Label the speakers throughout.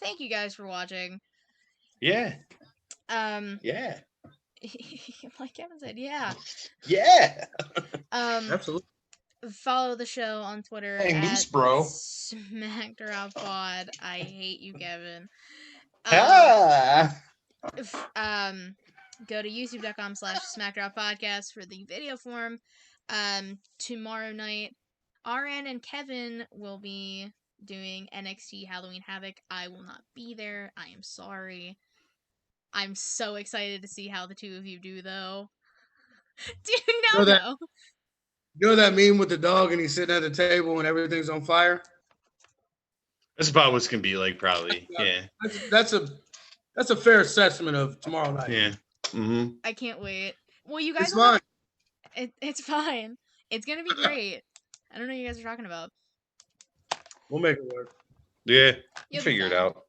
Speaker 1: thank you guys for watching.
Speaker 2: Yeah.
Speaker 1: Um,
Speaker 2: Yeah.
Speaker 1: like Kevin said, yeah.
Speaker 2: Yeah.
Speaker 1: Um,
Speaker 3: Absolutely.
Speaker 1: follow the show on Twitter.
Speaker 2: Hey,
Speaker 1: at um,
Speaker 2: Moose Bro.
Speaker 1: SmackDroppPod. I hate you, Kevin. Um,
Speaker 2: Ah.
Speaker 1: f- um, go to youtube.com slash smackdrop podcast for the video form um, tomorrow night rn and kevin will be doing nxt halloween havoc i will not be there i am sorry i'm so excited to see how the two of you do though do you know
Speaker 3: So that-
Speaker 1: though?
Speaker 3: You know that meme with the dog and he's sitting at the table and everything's on fire?
Speaker 2: That's about what's gonna be like, probably. Yeah.
Speaker 3: That's, that's a that's a fair assessment of tomorrow night.
Speaker 2: Yeah. Mm-hmm.
Speaker 1: i can't wait well you guys
Speaker 3: It's
Speaker 1: will have-
Speaker 3: fine.
Speaker 1: It, it's fine it's gonna be great i don't know what you guys are talking about
Speaker 3: We'll make it work.
Speaker 2: Yeah.
Speaker 1: You'll
Speaker 2: We'll
Speaker 1: be
Speaker 2: figure it
Speaker 1: fine.
Speaker 2: out.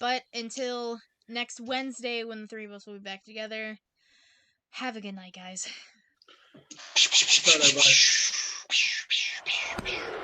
Speaker 1: But until next Wednesday, when the three of us will be back together, have a good night, guys.
Speaker 3: Bye, bye, bye.